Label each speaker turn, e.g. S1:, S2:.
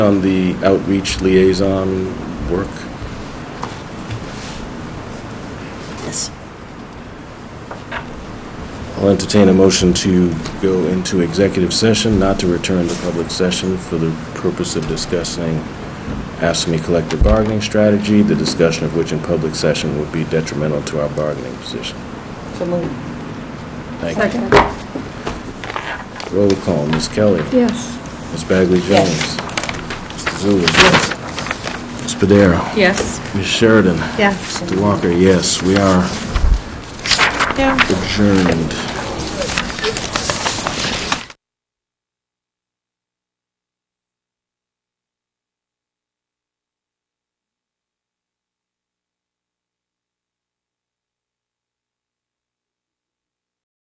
S1: on the outreach liaison work?
S2: Yes.
S1: I'll entertain a motion to go into executive session, not to return to public session for the purpose of discussing ASME collective bargaining strategy, the discussion of which in public session would be detrimental to our bargaining position.
S2: So moved.
S1: Thank you. Roll call, Ms. Kelly.
S3: Yes.
S1: Ms. Bagley Jones.
S2: Yes.
S1: Mr. Zulus. Yes. Ms. Padero.
S3: Yes.
S1: Ms. Sheridan.
S3: Yes.
S1: Mr. Walker, yes, we are
S3: Yeah.
S1: adjourned.